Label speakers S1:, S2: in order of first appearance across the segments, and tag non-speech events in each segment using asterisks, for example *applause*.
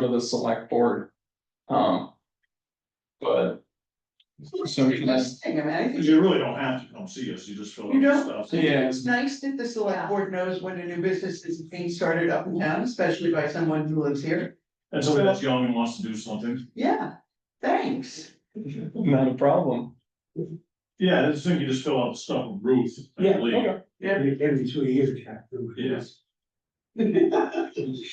S1: for the select board. Um. But, So we
S2: Pretty
S1: can-
S2: much thing, I mean, I think
S3: Cause you really don't have to come see us, you just fill out
S2: You
S3: the
S2: don't?
S3: stuff.
S1: yeah,
S2: it's nice that the select board knows when a new business is being started up in town, especially by someone who lives here.
S3: And somebody that's young and wants to do something.
S2: Yeah, thanks.
S1: not a problem.
S3: Yeah, that's the thing, you just fill out the stuff with Ruth. I believe.
S4: Every, every two years, you have to.
S2: *laughs*
S3: Yes.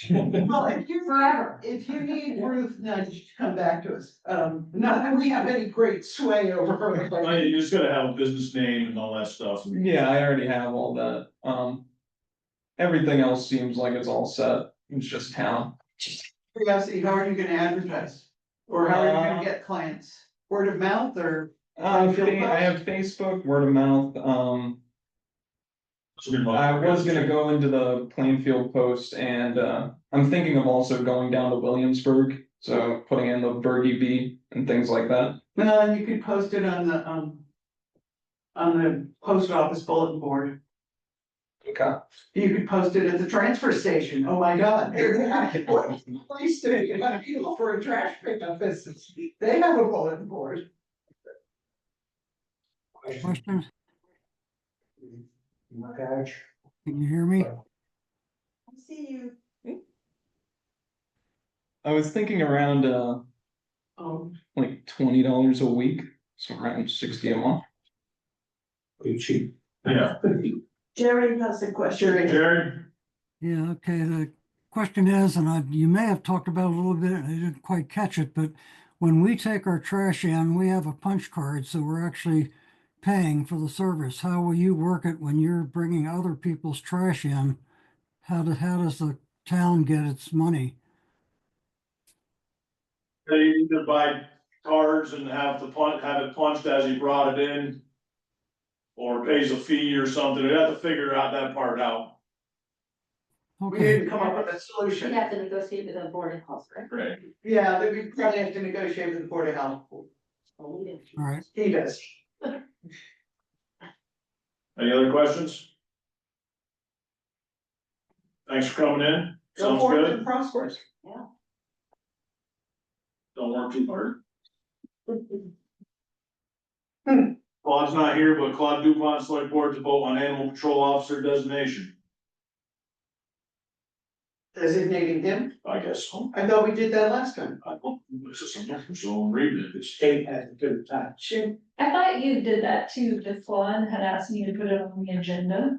S2: Well, if you forever, if you need Ruth Nudge to come back to us, um, not that we have any great sway over her.
S3: I mean,
S2: but-
S3: you just gotta have a business name and all that stuff. and-
S1: Yeah, I already have all that, um. Everything else seems like it's all set, it's just town.
S2: Curiosity, how are you gonna advertise? Or how are you gonna get clients? Word of mouth or?
S1: Uh, fa- I have Facebook, word of mouth, um,
S3: So you're like-
S1: I was gonna go into the Plainfield Post and, uh, I'm thinking of also going down to Williamsburg. So putting in the Bergie Bee and things like that.
S2: Well, you could post it on the, um. On the post office bulletin board.
S1: Okay.
S2: You could post it at the transfer station. Oh, my God. What Place to, you know, for a trash pickup business. They have a bulletin board.
S5: Question,
S4: Patch.
S5: can you hear me?
S2: See you.
S1: I was thinking around, uh,
S2: Um,
S1: like twenty dollars a week, so around sixty a month.
S4: Pretty cheap. *laughs*
S3: Yeah,
S6: Jerry has a question.
S2: Jerry,
S3: Jared,
S5: Yeah, okay, the question is, and I, you may have talked about it a little bit, and I didn't quite catch it, but when we take our trash in, we have a punch card, so we're actually paying for the service. How will you work it when you're bringing other people's trash in? How do, how does the town get its money?
S3: they either buy cards and have the punch, have it punched as he brought it in. Or pays a fee or something, they have to figure out that part out.
S2: we
S5: Okay,
S2: didn't come up with a solution.
S6: You have to negotiate with the board of health, *laughs* right?
S3: Right.
S2: Yeah, that we probably have to negotiate with the Board of Health.
S6: Well, Oh, we didn't.
S5: all right,
S2: He does.
S3: Any other questions? Thanks for coming in,
S2: Go
S3: sounds
S2: forth
S3: good,
S2: and prosper.
S3: don't work too hard. Claude's not here, but Claude Dupont, select board to vote on animal control officer designation,
S2: Designating him.
S3: I guess, so.
S2: I thought we did that last time.
S3: I don't, this is something, so I'm reading it, it's.
S4: State has a good touch.
S7: I thought you did that too, this one had asked me to put it on the agenda,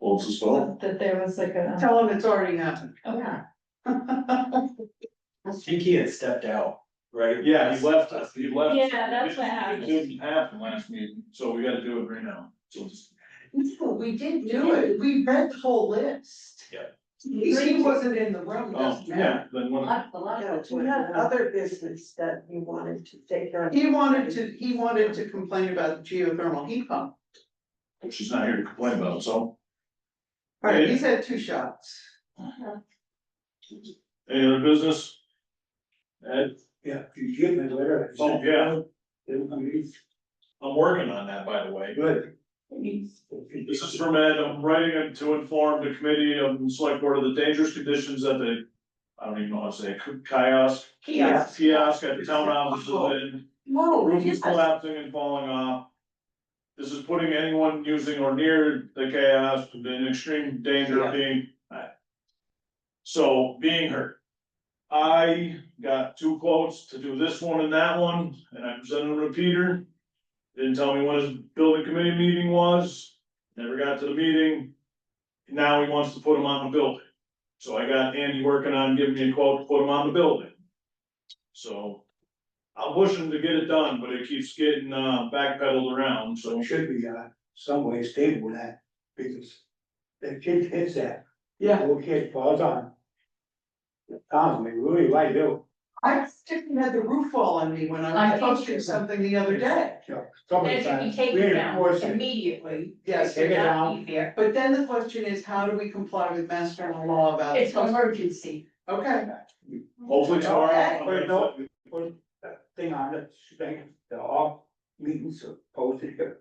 S3: Well, it's just all-
S4: Oh.
S7: that that there was like a,
S2: Tell him it's already
S6: *laughs*
S2: happened.
S7: okay.
S4: I think he had stepped out, right?
S3: Yeah, he left us, he left.
S7: Yeah, that's what happened.
S3: It didn't happen last meeting, so we gotta do it right now, so just,
S2: No, we did do it, we read the whole list.
S3: Yeah.
S2: He he wasn't in the room, it
S3: oh,
S2: doesn't matter.
S3: yeah, then
S6: A
S3: one,
S6: lot, a lot of.
S2: Yeah,
S6: it's
S2: we
S6: what-
S2: had
S6: other business that you wanted to take on.
S2: He wanted to, he wanted to complain about the geothermal heat pump,
S3: she's not here to complain about, so.
S2: alright,
S3: Yeah.
S2: he's had two shots.
S3: Any other business? Ed,
S4: Yeah, you give me a letter.
S3: Oh, yeah.
S4: It'll be
S3: I'm working on that, by the way.
S4: good.
S3: This is from Ed, I'm writing it to inform the committee of the select board of the dangerous conditions at the, I don't even know how to say, it, kiosk.
S2: Kiosk.
S3: Kiosk at the town offices in
S2: Whoa.
S3: Roof is collapsing and falling off. This is putting anyone using or near the chaos in extreme danger of being. So being hurt. I got two quotes to do this one and that one, and I presented them to Peter. Didn't tell me when his building committee meeting was, never got to the meeting. Now he wants to put them on the building. So I got Andy working on giving me a quote to put them on the building. So I'm pushing to get it done, but it keeps getting uh backpedaled around,
S4: So
S3: so.
S4: it should be, uh, some way stable that, because the kid hits that,
S2: Yeah,
S4: little kid falls on. Tom, they really like you.
S2: I still had the roof fall on me when I
S6: I
S2: was
S6: think
S2: posting
S6: you-
S2: something the other day.
S4: So,
S6: Then you
S4: sometimes
S6: can take
S4: we
S6: it down
S4: enforce it.
S6: immediately.
S2: Yes,
S4: Take it down.
S6: Easier.
S2: But then the question is, how do we comply with mass general law about?
S6: It's an emergency.
S2: Okay,
S3: Hopefully tomorrow. I'll
S4: But
S3: get
S4: no,
S3: that.
S4: we put that thing on it, thing, the all meetings are posted here.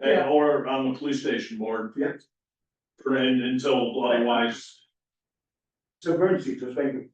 S3: And or on the police station board.
S4: Yeah.
S3: For and until otherwise,
S4: It's emergency, just like